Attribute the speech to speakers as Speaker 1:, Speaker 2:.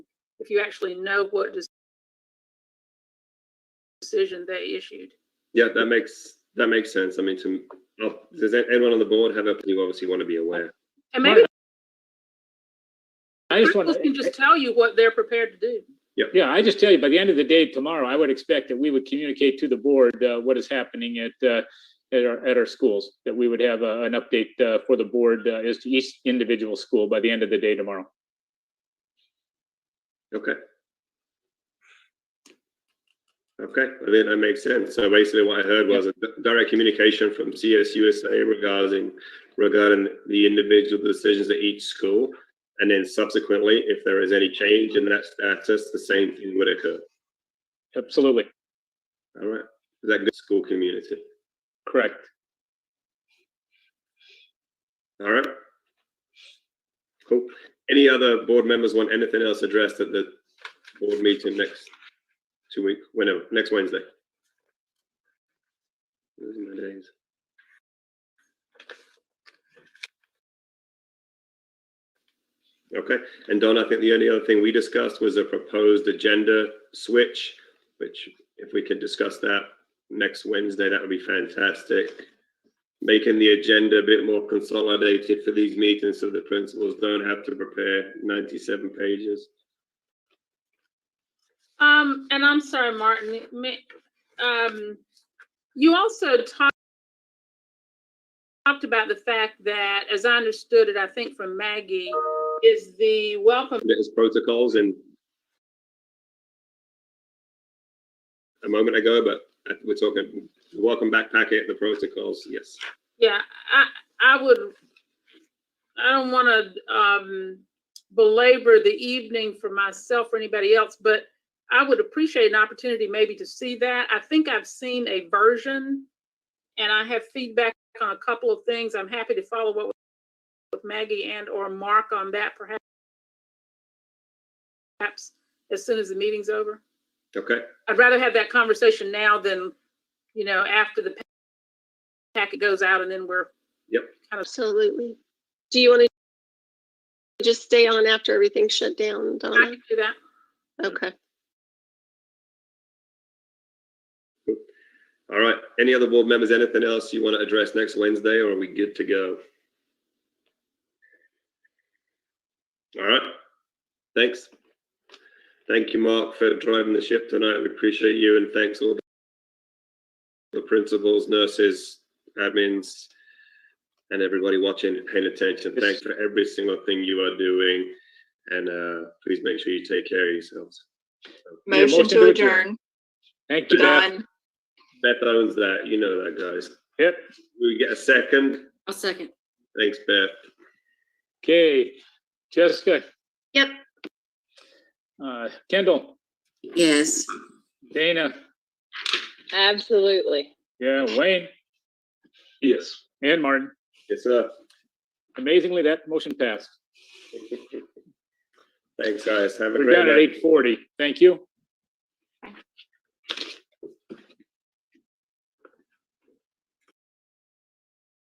Speaker 1: if you actually know what des- decision they issued.
Speaker 2: Yeah, that makes, that makes sense. I mean, to, oh, does anyone on the board have a, you obviously want to be aware.
Speaker 1: And maybe
Speaker 3: I just want
Speaker 1: Chris can just
Speaker 3: to,
Speaker 1: tell you what they're prepared to do.
Speaker 3: yeah, I just tell you, by the end of the day tomorrow, I would expect that we would communicate to the board uh, what is happening at, uh, at our, at our schools, that we would have uh, an update uh, for the board uh, as to each individual school by the end of the day tomorrow.
Speaker 2: Okay. Okay, I think that makes sense. So basically what I heard was a di- direct communication from CSUSA regarding, regarding the individual decisions at each school. And then subsequently, if there is any change in that status, the same thing would occur.
Speaker 3: Absolutely,
Speaker 2: All right, is that good school community?
Speaker 3: correct.
Speaker 2: All right. Cool. Any other board members want anything else addressed at the board meeting next two week, whenever, next Wednesday? Losing my days. Okay, and Don, I think the only other thing we discussed was a proposed agenda switch, which if we could discuss that next Wednesday, that would be fantastic making the agenda a bit more consolidated for these meetings so the principals don't have to prepare 97 pages.
Speaker 1: Um, and I'm sorry, Martin, it may- um, you also talked talked about the fact that, as I understood it, I think from Maggie, is the welcome
Speaker 2: There's protocols and a moment ago, but we're talking, welcome back packet, the protocols, yes.
Speaker 1: Yeah, I, I would, I don't want to, um, belabor the evening for myself or anybody else, but I would appreciate an opportunity maybe to see that. I think I've seen a version and I have feedback on a couple of things. I'm happy to follow up with Maggie and or Mark on that perhaps perhaps as soon as the meeting's over.
Speaker 2: Okay,
Speaker 1: I'd rather have that conversation now than, you know, after the pa- packet goes out and then we're.
Speaker 2: Yep.
Speaker 1: Kind of,
Speaker 4: Absolutely. Do you want to just stay on after everything's shut down,
Speaker 1: I
Speaker 4: Donna?
Speaker 1: can do that.
Speaker 4: Okay.
Speaker 2: all right. Any other board members, anything else you want to address next Wednesday or are we good to go? All right, thanks. Thank you, Mark, for driving the ship tonight. We appreciate you and thanks all the principals, nurses, admins, and everybody watching and paying attention. Thanks for every single thing you are doing. And uh, please make sure you take care of yourselves.
Speaker 3: Yeah,
Speaker 5: Motion to adjourn,
Speaker 3: Thank you, Beth.
Speaker 5: Don.
Speaker 2: Beth owns that. You know that, guys.
Speaker 3: Yep.
Speaker 2: We get a second.
Speaker 6: I'll second.
Speaker 2: Thanks, Beth.
Speaker 3: Okay, Jessica,
Speaker 4: Yep.
Speaker 3: uh, Kendall,
Speaker 6: Yes.
Speaker 3: Dana,
Speaker 4: Absolutely.
Speaker 3: yeah, Wayne,
Speaker 2: Yes.
Speaker 3: and Martin.
Speaker 2: Yes, sir.
Speaker 3: Amazingly, that motion passed.
Speaker 2: Thanks, guys. Have a
Speaker 3: We're down
Speaker 2: great
Speaker 3: at
Speaker 2: night.
Speaker 3: eight forty. Thank you.